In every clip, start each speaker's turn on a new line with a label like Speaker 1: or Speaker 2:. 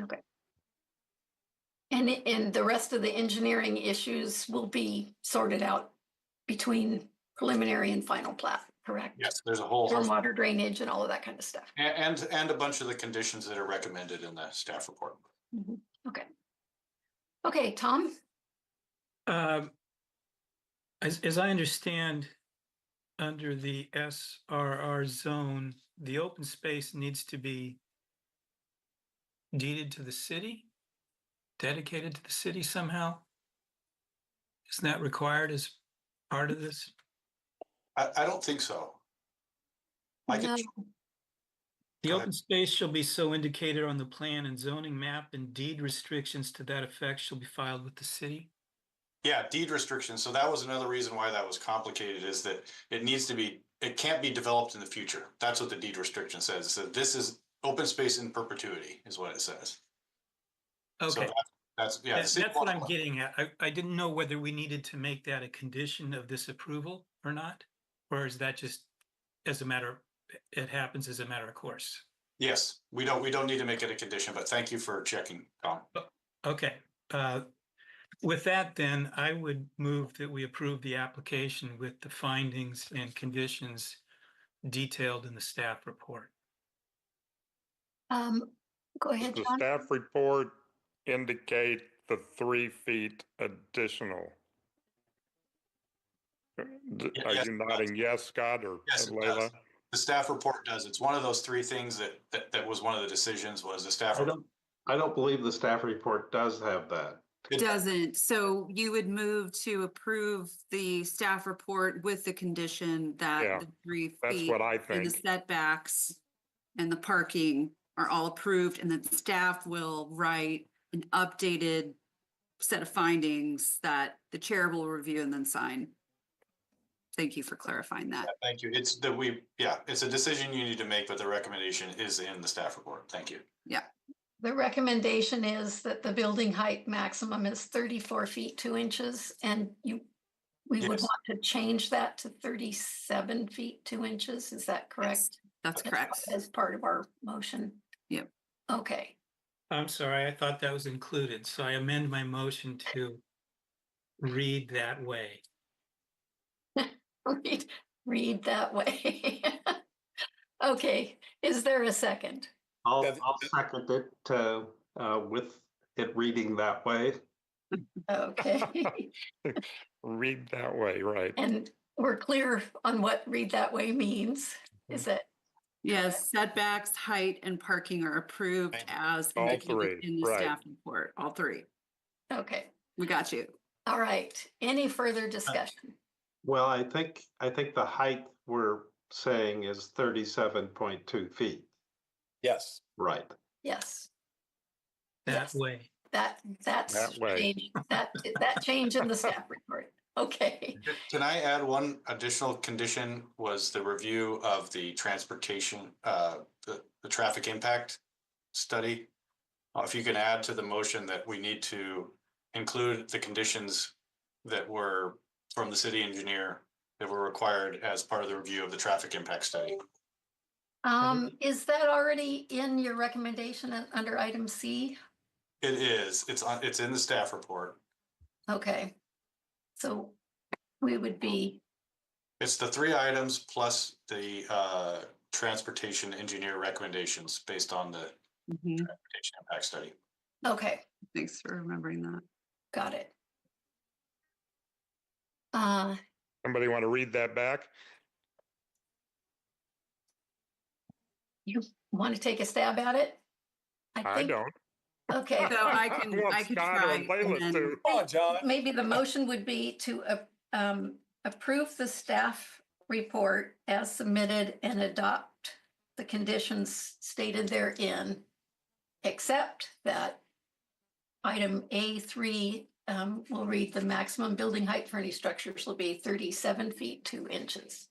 Speaker 1: Okay. And, i- and the rest of the engineering issues will be sorted out between preliminary and final plat, correct?
Speaker 2: Yes, there's a whole host,
Speaker 1: Stormwater drainage and all of that kind of stuff.
Speaker 2: a- and, and a bunch of the conditions that are recommended in the staff report.
Speaker 1: Okay, Tom?
Speaker 3: Um, As, as I understand, under the SRR zone, the open space needs to be deeded to the city, dedicated to the city somehow? Isn't that required as part of this?
Speaker 2: I, I don't think so. I can,
Speaker 3: The
Speaker 2: Go ahead.
Speaker 3: open space shall be so indicated on the plan and zoning map and deed restrictions to that effect shall be filed with the city?
Speaker 2: yeah, deed restrictions. So that was another reason why that was complicated is that it needs to be, it can't be developed in the future. That's what the deed restriction says. So this is open space in perpetuity is what it says. So
Speaker 3: Okay.
Speaker 2: that- That's, yeah. the
Speaker 3: That-
Speaker 2: city
Speaker 3: That's what I'm
Speaker 2: wants-
Speaker 3: getting at. I, I didn't know whether we needed to make that a condition of this approval or not. Or is that just as a matter, it happens as a matter of course?
Speaker 2: Yes, we don't, we don't need to make it a condition, but thank you for checking, Tom.
Speaker 3: Okay, uh, with that then, I would move that we approve the application with the findings and conditions detailed in the staff report.
Speaker 1: Um, go
Speaker 4: Does
Speaker 1: ahead,
Speaker 4: the
Speaker 1: John.
Speaker 4: staff report indicate the three feet additional? Uh, d-
Speaker 2: Ye-
Speaker 4: Are
Speaker 2: yes,
Speaker 4: you
Speaker 2: it does.
Speaker 4: nodding yes, Scott or
Speaker 2: Yes, it does.
Speaker 4: Leila?
Speaker 2: The staff report does. It's one of those three things that, that, that was one of the decisions was the staff.
Speaker 5: I don't, I don't believe the staff report does have that.
Speaker 2: It-
Speaker 6: Doesn't, so you would move to approve the staff report with the condition
Speaker 4: Yeah,
Speaker 6: that the three
Speaker 4: That's
Speaker 6: feet.
Speaker 4: what I
Speaker 6: And the
Speaker 4: think.
Speaker 6: setbacks and the parking are all approved and then staff will write an updated set of findings that the chair will review and then sign. Thank you for clarifying that.
Speaker 2: Thank you. It's that we, yeah, it's a decision you need to make, but the recommendation is in the staff report. Thank you.
Speaker 1: The recommendation is that the building height maximum is thirty-four feet, two inches, and you, we would
Speaker 2: Yes.
Speaker 1: want to change that to thirty-seven feet, two inches. Is that correct?
Speaker 6: That's
Speaker 1: as part-
Speaker 6: correct.
Speaker 1: As part of our motion?
Speaker 6: Yep.
Speaker 1: Okay,
Speaker 3: I'm sorry, I thought that was included, so I amend my motion to read that way.
Speaker 1: read, read that way. Okay, is there a second?
Speaker 5: I'll,
Speaker 7: Yeah, the-
Speaker 5: I'll second it to, uh, with it reading that way.
Speaker 1: Okay,
Speaker 4: Read that way, right?
Speaker 1: and we're clear on what read that way means,
Speaker 4: Mm-hmm.
Speaker 1: is that
Speaker 6: Yes, setbacks, height and parking are approved
Speaker 2: Thank you.
Speaker 6: as
Speaker 4: All
Speaker 6: indicated
Speaker 4: three,
Speaker 6: in the
Speaker 4: right.
Speaker 6: staff report, all three.
Speaker 1: Okay,
Speaker 6: We got you.
Speaker 1: all right. Any further discussion?
Speaker 5: Well, I think, I think the height we're saying is thirty-seven point two feet,
Speaker 7: Yes.
Speaker 5: right?
Speaker 1: Yes,
Speaker 3: That
Speaker 1: Yes.
Speaker 3: way.
Speaker 1: that, that's
Speaker 4: That way.
Speaker 1: change- that, that change in the staff report. Okay,
Speaker 2: Can I add one additional condition was the review of the transportation, uh, the, the traffic impact study? Uh, If you can add to the motion that we need to include the conditions that were from the city engineer that were required as part of the review of the traffic impact study.
Speaker 1: um, is that already in your recommendation uh, under item C?
Speaker 2: It is, it's on, it's in the staff report.
Speaker 1: Okay. So we would be,
Speaker 2: It's the three items plus the uh transportation engineer recommendations based on the
Speaker 6: Mhm.
Speaker 2: transportation impact study.
Speaker 1: okay,
Speaker 6: Thanks for remembering that.
Speaker 1: got it. Uh,
Speaker 4: Somebody want to read that back?
Speaker 1: want to take a stab at it?
Speaker 4: I
Speaker 1: think-
Speaker 4: don't.
Speaker 1: Okay.
Speaker 6: So I can-
Speaker 4: want
Speaker 6: I can
Speaker 4: Scott or
Speaker 6: try and
Speaker 4: Leila
Speaker 6: then-
Speaker 4: to-
Speaker 7: Come on, John.
Speaker 1: Maybe the motion would be to a- um, approve the staff report as submitted and adopt the conditions stated therein, except that item A3 um, will read the maximum building height for any structures will be 37 feet 2 inches.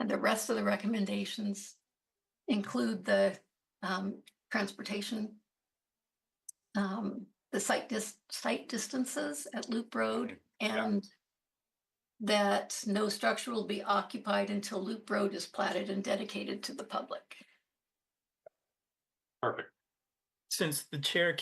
Speaker 1: And the rest of the recommendations include the um, transportation um, the site dis- site distances at Loop Road
Speaker 2: Yeah.
Speaker 1: and that no structure will be occupied until Loop Road is platted and dedicated to the public.
Speaker 2: Perfect.
Speaker 3: Since the chair